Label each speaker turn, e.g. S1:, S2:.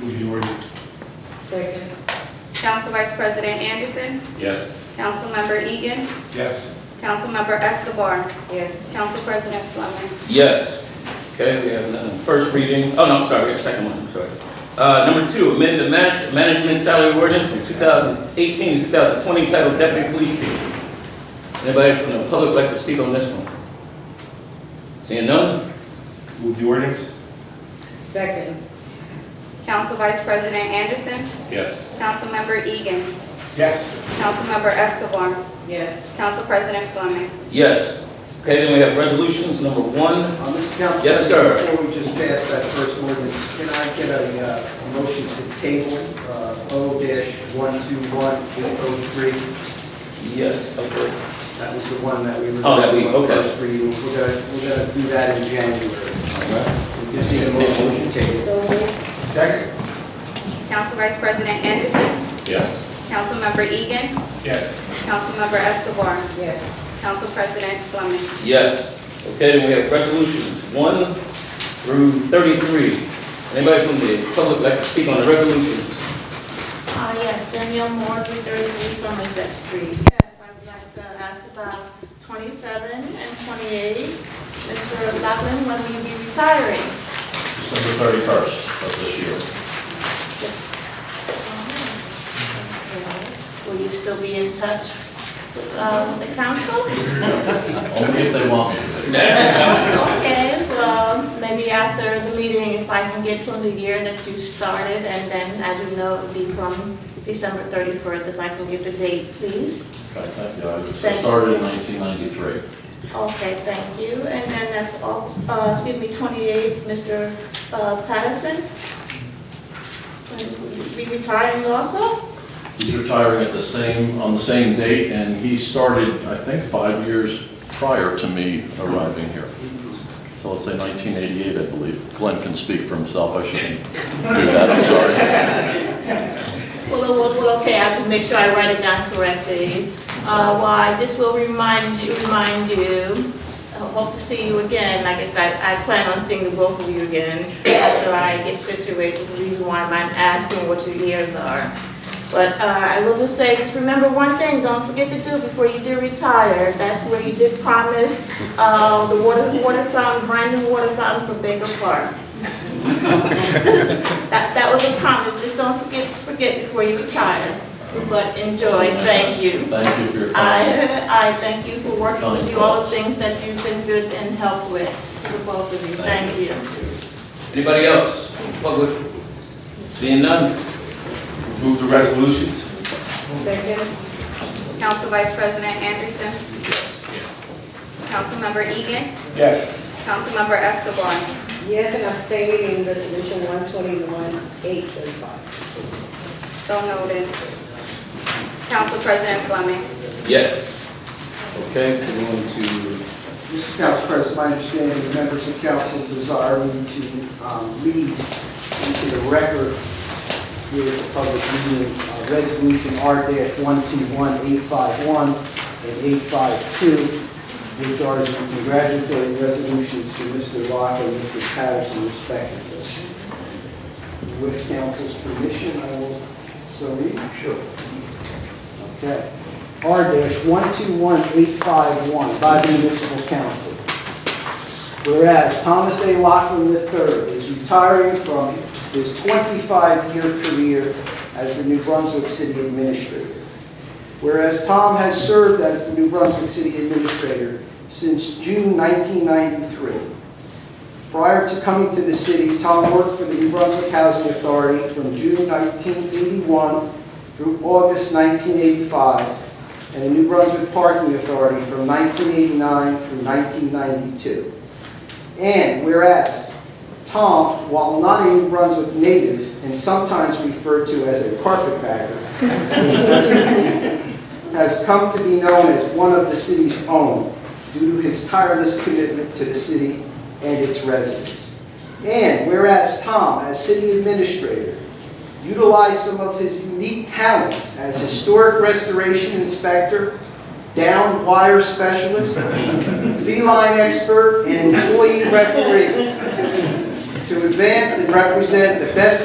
S1: Move the ordinance.
S2: Second.
S3: Council Vice President Anderson,
S1: Yes.
S3: Councilmember Egan,
S1: Yes.
S3: Councilmember Escobar,
S2: Yes.
S3: Council President Fleming.
S4: Yes. Okay, we have uh, first reading, oh no, I'm sorry, we have second one, I'm sorry. Uh, Number two, amend the manage- management salary ordinance from 2018 to 2020 titled Deputy Police Chief. Anybody from the public like to speak on this one? Seeing none?
S1: Move the ordinance.
S2: Second.
S3: Council Vice President Anderson,
S1: Yes.
S3: Councilmember Egan,
S1: Yes.
S3: Councilmember Escobar,
S2: Yes.
S3: Council President Fleming.
S4: Yes. Okay, then we have resolutions, number one.
S5: Uh, Mr. Council
S4: Yes,
S5: President,
S4: sir.
S5: Before we just pass that first ordinance, can I get a uh, a motion to table uh, O dash one two one oh three?
S4: Yes, okay.
S5: That was the one that we were.
S4: Oh, that we-
S5: doing on
S4: okay.
S5: First reading, we're gonna, we're gonna do that in January.
S4: All right.
S5: We just need a motion to table.
S2: So moved.
S1: Second.
S3: Council Vice President Anderson,
S1: Yes.
S3: Councilmember Egan,
S1: Yes.
S3: Councilmember Escobar,
S2: Yes.
S3: Council President Fleming.
S4: Yes. Okay, then we have resolutions, one through 33. Anybody from the public like to speak on the resolutions?
S6: Uh, yes, Danielle Moore, 333 Somerset Street. Yes, I would like to ask about 27 and 28. Mr. Loughlin, when will you be retiring?
S7: December 31st of this year.
S6: Mm-hmm. Will you still be in touch with um, the council?
S7: Only if they want me to.
S6: Okay, well, maybe after the meeting, if I can get from the year that you started, and then, as you know, it'll be from December 31st, if I can get the date, please.
S7: Okay, thank you. I was- I
S6: Thank you.
S7: started in 1993.
S6: Okay, thank you. And then that's all, uh, excuse me, 28, Mr. uh, Patterson. And Be retiring also?
S7: He's retiring at the same, on the same date, and he started, I think, five years prior to me arriving here. So let's say 1988, I believe. Glenn can speak for himself, I shouldn't do that, I'm sorry.
S6: Well, well, well, okay, I have to make sure I write it down correctly. Uh, Well, I just will remind you, remind you, I hope to see you again. Like I said, I plan on seeing the both of you again after I get situated, the reason why I'm asking what your years are. But uh, I will just say, just remember one thing, don't forget to do before you do retire. That's where you did promise uh, the water water fountain, brand new water fountain for Baker Park. That, that was a promise, just don't forget, forget before you retire. But enjoy, thank you.
S7: Thank you for your time.
S6: I, I thank you for working with you, all the things that you've been good and helped with, for the both of you, thank you.
S4: Anybody else? Public? Seeing none?
S1: Move the resolutions.
S2: Second.
S3: Council Vice President Anderson, Councilmember Egan,
S1: Yes.
S3: Councilmember Escobar,
S2: Yes, and abstaining in resolution one twenty-one, eight thirty-five.
S3: so noted. Council President Fleming.
S4: Yes. Okay, we're going to,
S5: Mr. Council President, my understanding, the members of council desire me to um, read into the record here at the public meeting, uh, Resolution R-121851 and 852, which are the congratulatory resolutions to Mr. Locke and Mr. Patterson respectively. With council's permission, I will so read. Sure. Okay. R-121851 by the municipal council. Whereas Thomas A. Lockland III is retiring from his 25-year career as the New Brunswick City Administrator. Whereas Tom has served as the New Brunswick City Administrator since June 1993. Prior to coming to the city, Tom worked for the New Brunswick Housing Authority from June 1981 through August 1985, and the New Brunswick Parking Authority from 1989 through 1992. And whereas Tom, while not a New Brunswick native and sometimes referred to as a carpetbagger, has come to be known as one of the city's own due to his tireless commitment to the city and its residents. And whereas Tom, as city administrator, utilized some of his unique talents as historic restoration inspector, down wire specialist, feline expert, and employee referee to advance and represent the best